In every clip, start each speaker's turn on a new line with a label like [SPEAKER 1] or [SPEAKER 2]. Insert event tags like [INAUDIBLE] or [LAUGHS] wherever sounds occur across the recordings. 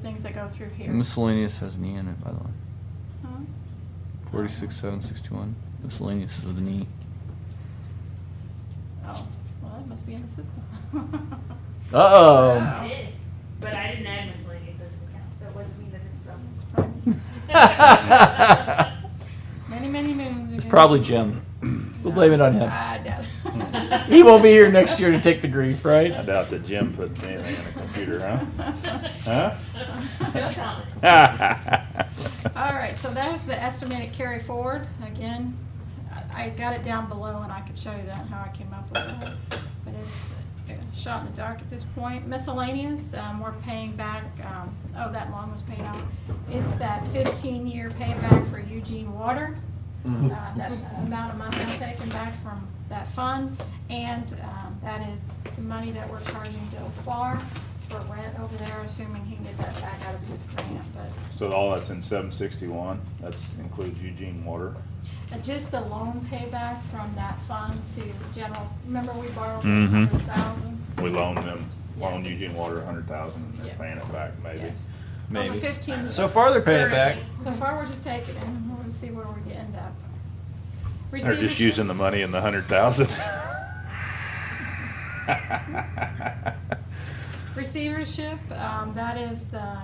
[SPEAKER 1] things that go through here.
[SPEAKER 2] Miscellaneous has an E in it, by the way.
[SPEAKER 1] Huh?
[SPEAKER 2] Forty-six, seven, sixty-one. Miscellaneous is with an E.
[SPEAKER 1] Oh, well, that must be in the system. [LAUGHS]
[SPEAKER 2] Uh-oh.
[SPEAKER 3] I did, but I didn't add miscellaneous as an account, so it wasn't even from
[SPEAKER 1] It's probably- Many, many moons
[SPEAKER 2] It's
[SPEAKER 1] ago.
[SPEAKER 2] [LAUGHS] probably Jim. We'll blame it on him.
[SPEAKER 1] I doubt it.
[SPEAKER 2] He won't be here next year to take the grief,
[SPEAKER 4] I
[SPEAKER 2] right?
[SPEAKER 4] doubt that Jim put anything in a
[SPEAKER 3] [LAUGHS]
[SPEAKER 4] computer, huh?
[SPEAKER 3] No comment.
[SPEAKER 4] Huh?
[SPEAKER 1] [LAUGHS] All right, so that was the estimated carry forward. Again, I I got it down below and I could show you that, how I came up with that. But it's a shot in the dark at this point. Miscellaneous, um, we're paying back, um, oh, that loan was paid off. It's that fifteen-year payback for Eugene Water. Uh, That amount of money I'm taking back from that fund. And um, that is the money that we're charging Bill Farr for rent over there, assuming he can get that back out of his grant, but
[SPEAKER 4] So all that's in seven sixty-one, that includes Eugene Water.
[SPEAKER 1] Uh, Just the loan payback from that fund to general, remember we borrowed a
[SPEAKER 4] Mhm.
[SPEAKER 1] hundred thousand?
[SPEAKER 4] We loaned them, loaned
[SPEAKER 1] Yes.
[SPEAKER 4] Eugene Water a hundred thousand and
[SPEAKER 1] Yeah.
[SPEAKER 4] they're paying it back maybe.
[SPEAKER 1] Yes. Over
[SPEAKER 2] Maybe.
[SPEAKER 1] fifteen.
[SPEAKER 2] So far, they're paying it back.
[SPEAKER 1] currently. So far, we're just taking it, and we'll see where we end up.
[SPEAKER 4] They're just
[SPEAKER 1] Receivership-
[SPEAKER 4] using the money in the hundred thousand.
[SPEAKER 1] Receivership, um, that is the,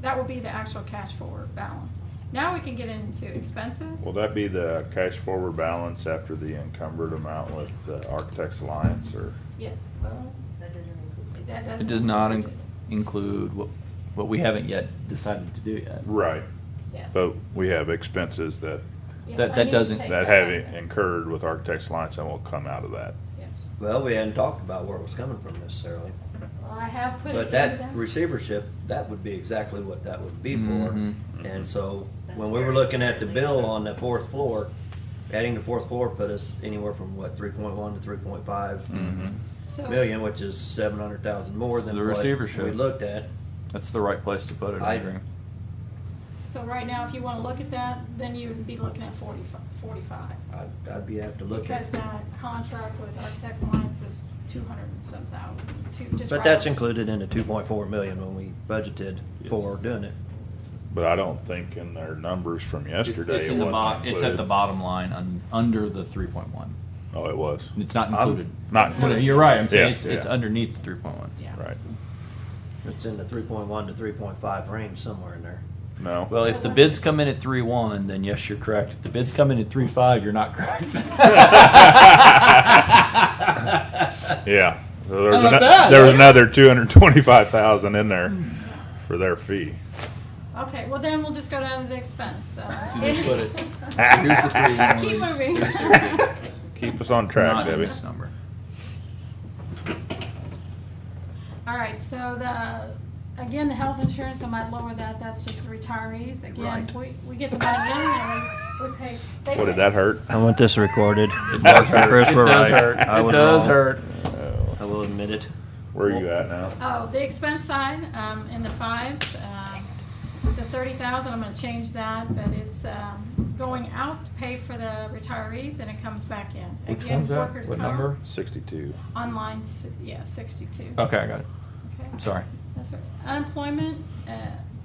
[SPEAKER 1] that will be the actual cash forward balance. Now we can get into expenses.
[SPEAKER 4] [LAUGHS] Will that be the cash forward balance after the encumbered amount with the Architects Alliance or?
[SPEAKER 1] Yeah, well,
[SPEAKER 3] Well, that doesn't include.
[SPEAKER 1] that doesn't.
[SPEAKER 2] It does not in- include what, what we haven't yet decided to do yet.
[SPEAKER 4] Right,
[SPEAKER 1] Yes.
[SPEAKER 4] but we have expenses that,
[SPEAKER 1] Yes,
[SPEAKER 2] that-
[SPEAKER 1] I need
[SPEAKER 2] that
[SPEAKER 1] to
[SPEAKER 2] doesn't-
[SPEAKER 1] take
[SPEAKER 4] that have
[SPEAKER 1] back.
[SPEAKER 4] incurred with Architects Alliance and will come out of that.
[SPEAKER 1] Yes.
[SPEAKER 5] Well, we hadn't talked about where it was coming from necessarily,
[SPEAKER 1] Well, I have put it
[SPEAKER 5] but
[SPEAKER 1] in
[SPEAKER 5] that
[SPEAKER 1] the-
[SPEAKER 5] receivership, that would be exactly what that would be for.
[SPEAKER 2] Mhm.
[SPEAKER 5] And so, when we were looking at the bill on the fourth floor, adding the fourth floor put us anywhere from what, three point one to three point five
[SPEAKER 2] Mhm.
[SPEAKER 1] so-
[SPEAKER 5] million, which is seven hundred thousand more than
[SPEAKER 2] The
[SPEAKER 5] what
[SPEAKER 2] receivership.
[SPEAKER 5] we looked at.
[SPEAKER 2] That's the right place to put it, I
[SPEAKER 5] I-
[SPEAKER 2] agree.
[SPEAKER 1] So right now, if you want to look at that, then you would be looking at 40 45.
[SPEAKER 5] I'd, I'd be have to look at.
[SPEAKER 1] Because that contract with Architects Alliance is 200 and some thousand, two- just
[SPEAKER 5] But
[SPEAKER 1] right
[SPEAKER 5] that's
[SPEAKER 1] on-
[SPEAKER 5] included in the two point four million when we budgeted for doing it.
[SPEAKER 4] But I don't think in their numbers from yesterday.
[SPEAKER 2] It's
[SPEAKER 4] it
[SPEAKER 2] in the bo-
[SPEAKER 4] wasn't
[SPEAKER 2] It's at
[SPEAKER 4] included.
[SPEAKER 2] the bottom line, un- under the three point one.
[SPEAKER 4] Oh, it was.
[SPEAKER 2] It's not
[SPEAKER 4] I'm
[SPEAKER 2] included. No,
[SPEAKER 4] Not
[SPEAKER 2] no,
[SPEAKER 4] included.
[SPEAKER 2] You're right, I'm saying
[SPEAKER 4] Yeah,
[SPEAKER 2] it's, it's
[SPEAKER 4] yeah.
[SPEAKER 2] underneath the three point one.
[SPEAKER 1] Yeah.
[SPEAKER 4] Right.
[SPEAKER 5] It's in the three point one to three point five range somewhere in there.
[SPEAKER 4] No.
[SPEAKER 2] Well, if the bids come in at three one, then yes, you're correct. If the bids come in at three five, you're not correct.
[SPEAKER 1] [LAUGHS]
[SPEAKER 4] Yeah. So there was,
[SPEAKER 2] How about
[SPEAKER 4] ano-
[SPEAKER 2] that?
[SPEAKER 4] there was another two hundred twenty-five thousand in there for their fee.
[SPEAKER 1] Okay, well then we'll just go down to the expense.
[SPEAKER 5] [LAUGHS]
[SPEAKER 1] uh,
[SPEAKER 2] So just put it-
[SPEAKER 4] here's the [LAUGHS]
[SPEAKER 1] Keep moving.
[SPEAKER 4] Keep us on
[SPEAKER 2] Not
[SPEAKER 4] track,
[SPEAKER 2] in
[SPEAKER 4] Debbie.
[SPEAKER 2] this number.
[SPEAKER 1] [LAUGHS] All right, so the, again, the health insurance, I might lower that, that's just the retirees. Again,
[SPEAKER 5] Right.
[SPEAKER 1] we, we get the money in and we- we pay. they
[SPEAKER 4] What
[SPEAKER 1] pay.
[SPEAKER 4] did that hurt?
[SPEAKER 5] I want this recorded.
[SPEAKER 4] It does hurt.
[SPEAKER 5] Chris,
[SPEAKER 4] It
[SPEAKER 5] we're
[SPEAKER 4] does
[SPEAKER 5] right.
[SPEAKER 4] hurt.
[SPEAKER 5] I
[SPEAKER 4] It
[SPEAKER 5] was
[SPEAKER 4] does
[SPEAKER 5] wrong.
[SPEAKER 2] hurt.
[SPEAKER 5] I will admit it.
[SPEAKER 4] Where are you at now?
[SPEAKER 1] Oh, the expense side, um, in the fives, um, the thirty thousand, I'm gonna change that, but it's, um, going out to pay for the retirees and it comes back in. Again, workers'
[SPEAKER 2] What
[SPEAKER 1] comp,
[SPEAKER 2] number?
[SPEAKER 4] Sixty-two.
[SPEAKER 1] On line, s- yeah, sixty-two.
[SPEAKER 2] Okay, I got it.
[SPEAKER 1] Okay.
[SPEAKER 2] Sorry.
[SPEAKER 1] That's right. Unemployment, uh,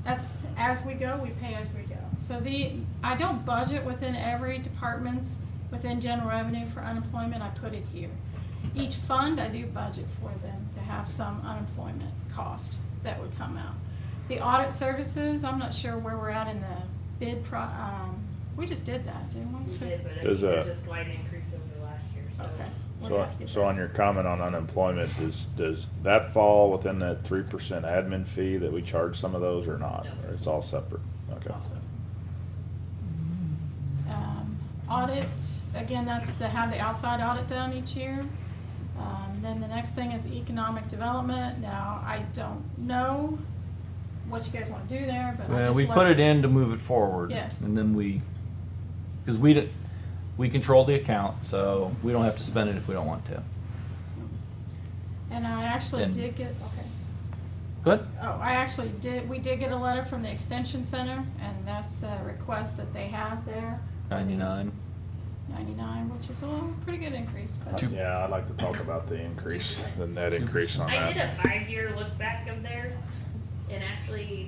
[SPEAKER 1] that's as we go, we pay as we go. So the, I don't budget within every department's, within general revenue for unemployment, I put it here. Each fund, I do budget for them to have some unemployment cost that would come out. The audit services, I'm not sure where we're at in the bid pro, um, we just did that, didn't we?
[SPEAKER 3] We
[SPEAKER 1] So-
[SPEAKER 3] did, but I
[SPEAKER 4] Does,
[SPEAKER 3] think there's
[SPEAKER 4] uh,
[SPEAKER 3] a slight increase over last year, so.
[SPEAKER 1] Okay. we'll
[SPEAKER 4] So,
[SPEAKER 1] have to get
[SPEAKER 4] so
[SPEAKER 1] that.
[SPEAKER 4] on your comment on unemployment, does, does that fall within that three percent admin fee that we charge some of those or not?
[SPEAKER 3] No.
[SPEAKER 4] Or it's all separate? Okay.
[SPEAKER 1] also. Um, Audit, again, that's to have the outside audit done each year. Um, Then the next thing is economic development. Now, I don't know what you guys want to do there, but I
[SPEAKER 2] Well,
[SPEAKER 1] just.
[SPEAKER 2] we put
[SPEAKER 1] left
[SPEAKER 2] it in to move it forward.
[SPEAKER 1] Yes.
[SPEAKER 2] And then we, because we, d- we control the account, so we don't have to spend it if we don't want to.
[SPEAKER 1] And I actually
[SPEAKER 2] And-
[SPEAKER 1] did get, okay.
[SPEAKER 2] Good?
[SPEAKER 1] Oh, I actually did, we did get a letter from the Extension Center, and that's the request that they have there.
[SPEAKER 2] Ninety-nine.
[SPEAKER 1] Ninety-nine, which is a little, pretty good increase, but.
[SPEAKER 2] Two-
[SPEAKER 4] Yeah, I'd like to talk about the increase, the net increase on that.
[SPEAKER 3] I did a five-year look back of theirs, and actually,